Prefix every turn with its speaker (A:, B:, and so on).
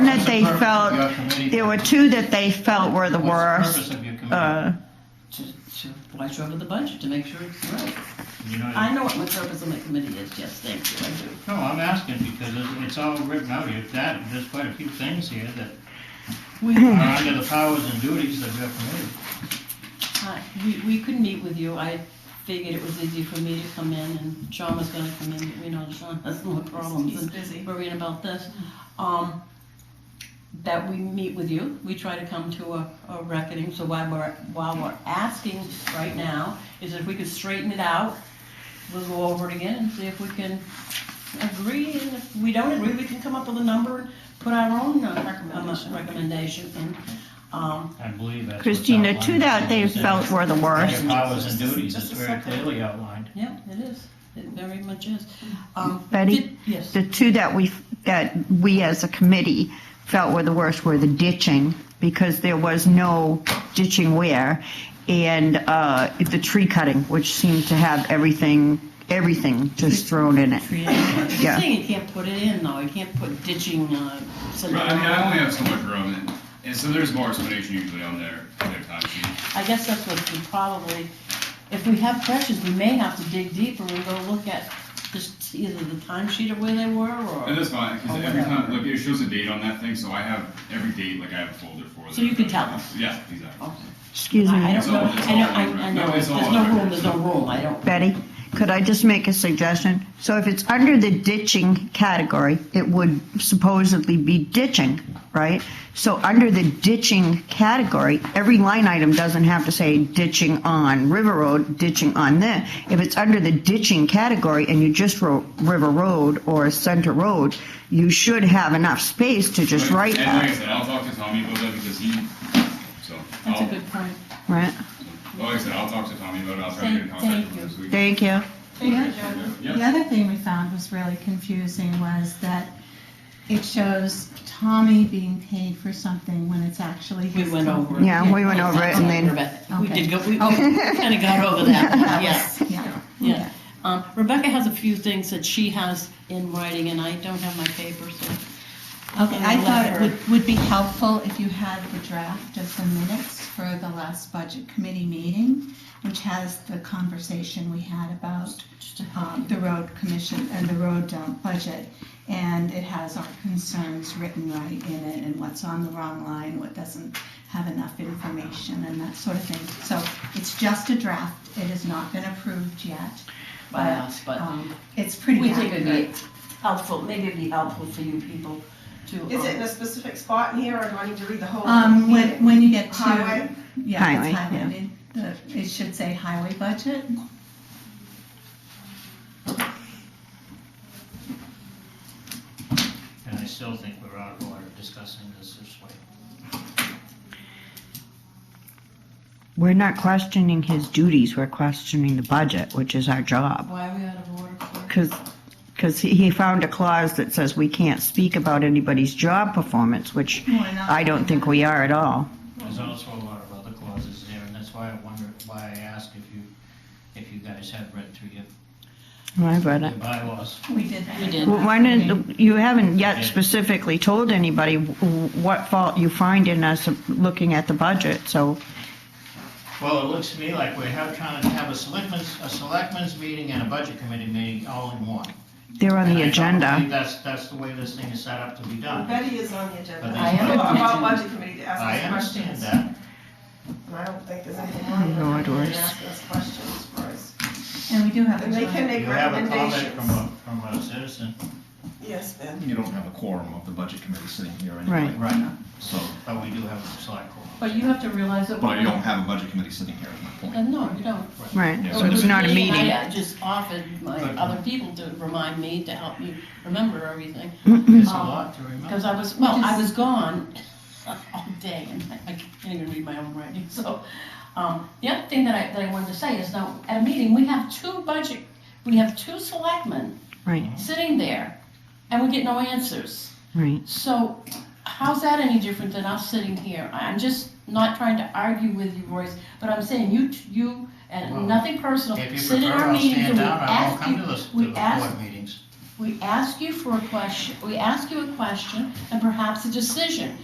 A: that they felt, there were two that they felt were the
B: What's the
A: worst.
B: purpose of your committee?
A: Uh,
C: to, to watch over the budget, to make sure it's right.
B: You know,
C: I know what my purpose of my committee is, yes, thank you, I do.
B: No, I'm asking because it's- it's all written out here, that, there's quite a few things here that
C: We,
B: are under the powers and duties of your committee.
C: I- we, we could meet with you, I figured it was easy for me to come in, and Sean was gonna come in, but we know Sean has more problems
D: He's
C: than
D: busy.
C: worrying about this. Um, that we meet with you, we try to come to a, a reckoning, so why we're, while we're asking right now, is if we could straighten it out, we'll go over it again and see if we can agree, and if we don't agree, we can come up with a number and put our own uh,
D: Recommendation.
C: recommendation, and, um,
B: I believe that's. what's
A: Christina,
B: outlined
A: two that they
B: in the
A: felt were the worst.
B: Your powers and duties, it's
D: Just a
B: very
D: second.
B: clearly outlined.
C: Yeah, it is. It very much is. Um,
A: Mm. Betty?
C: did- Yes.
A: The two that we, that we as a committee felt were the worst were the ditching, because there was no ditching where, and uh, the tree cutting, which seemed to have everything, everything just thrown in it.
C: The
A: yeah.
C: thing, you can't put it in though. You can't put ditching, uh, some-
E: Right, I mean, I only have so much room, and, and so there's more explanation usually on their, their time sheet.
C: I guess that's what we probably, if we have questions, we may have to dig deeper and go look at just either the timesheet of where they were
E: And
C: or.
E: that's fine, because
C: Oh,
E: every
C: whatever.
E: time, like, it shows a date on that thing, so I have every date, like, I have a folder for it.
C: So you can tell us.
E: Yeah, exactly.
C: Okay.
A: Excuse me.
C: I I
E: It's
C: don't know.
E: all- it's
C: I know,
E: all
C: I
E: on
C: I
E: record.
C: know.
E: No,
C: There's
E: it's all on
C: no
E: record.
C: room, there's no room. I don't.
A: Betty, could I just make a suggestion? So if it's under the ditching category, it would supposedly be ditching, right? So under the ditching category, every line item doesn't have to say ditching on River Road, ditching on this. If it's under the ditching category and you just wrote River Road or Center Road, you should have enough space to just
E: But-
A: write
E: And like I
A: that,
E: said, I'll talk to Tommy about that, because he, so, I'll,
C: That's a good point.
A: right?
E: well, like I said, I'll talk to Tommy about it, I'll try to get in
F: Thank-
E: contact
F: thank
E: with him this week.
A: Thank you.
E: Yeah.
F: The other thing we found was really confusing was that it shows Tommy being paid for something when it's actually
C: We
F: his.
C: went over. it.
A: Yeah, we went over it and then-
C: We did go, we
A: Okay.
C: kind of got over that, one, yes.
F: Yeah.
C: Yeah. Um, Rebecca has a few things that she has in writing, and I don't have my paper, so.
F: Okay, I
C: I'll
F: thought
C: let
F: it
C: her-
F: would, would be helpful if you had the draft of the minutes for the last budget committee meeting, which has the conversation we had about um, the road commission and the road um, budget. And it has our concerns written right in it and what's on the wrong line, what doesn't have enough information and that sort of thing. So it's just a draft. It has not been approved yet.
C: By us, but-
F: um, It's pretty
C: We think it'd be
F: accurate.
C: helpful, maybe it'd be helpful for you people to.
D: Is it in
C: um,
D: a specific spot in here, or do I need to read the whole?
F: Um, when,
D: meeting?
F: when you get to.
D: Highway?
F: Yeah,
A: Highway,
F: it's
A: yeah.
F: highlighted. The- It should say highway budget.
B: And I still think we're out of order discussing this this way.
A: We're not questioning his duties, we're questioning the budget, which is our job.
C: Why are we out of order? for?
A: Because, because he he found a clause that says we can't speak about anybody's job performance, which
F: Why not?
A: I don't think we are at all.
B: There's
D: Mm-hmm.
B: also a lot of other clauses there, and that's why I wonder, why I asked if you, if you guys have read through your
A: Oh, I read
B: your
A: it.
B: bylaws.
F: We did that.
C: We did.
A: Well, Why didn't, you haven't yet
B: Yeah.
A: specifically told anybody wh- what fault you find in us looking at the budget, so,
B: Well, it looks to me like we have trying to have a selectmen's, a selectmen's meeting and a budget committee meeting all in one.
A: they're on
B: And I
A: the
B: don't
A: agenda.
B: believe That's, that's the way this thing is set up to be done.
D: Betty is on the agenda.
B: But
C: I am on the
D: About
C: agenda.
D: budget committee to ask
B: I
D: us
B: understand
D: questions.
B: that.
D: And I don't think there's anything wrong with
A: Lord,
D: them
A: worse.
D: asking us questions for us.
F: And we do have a
D: And they can
F: joint.
B: You
D: make
B: have a comment from
D: recommendations.
B: a, from a citizen,
D: Yes, Ben.
G: You don't have a quorum of the budget committee sitting here
A: Right.
G: anyway.
B: Right.
G: So,
B: but we do have a select call.
C: But you have to realize that.
G: but you don't have a budget committee sitting here, is my point.
C: Uh, No, you don't.
A: Right,
G: Yeah.
A: so it's not a meeting.
C: I just offered my other people to remind me to help me remember everything,
B: It's a
C: Um,
B: lot to remember.
C: because I was, well, I was gone all day, and I can't even read my own writing, so. Um, the other thing that I, that I wanted to say is now, at a meeting, we have two budget, we have two selectmen
A: Right,
C: sitting there, and we get no answers.
A: right.
C: So, how's that any different than us sitting here? I'm just not trying to argue with you, Royce, but I'm saying you, t- you, and
B: Well,
C: nothing personal,
B: If you
C: sit in
B: prefer,
C: our
B: I'll
C: meetings and
B: stand
C: we
B: down, I won't
C: ask
B: come to the,
C: you,
B: to the
C: we ask,
B: board meetings.
C: we ask you for a question, we ask you a question and perhaps a decision.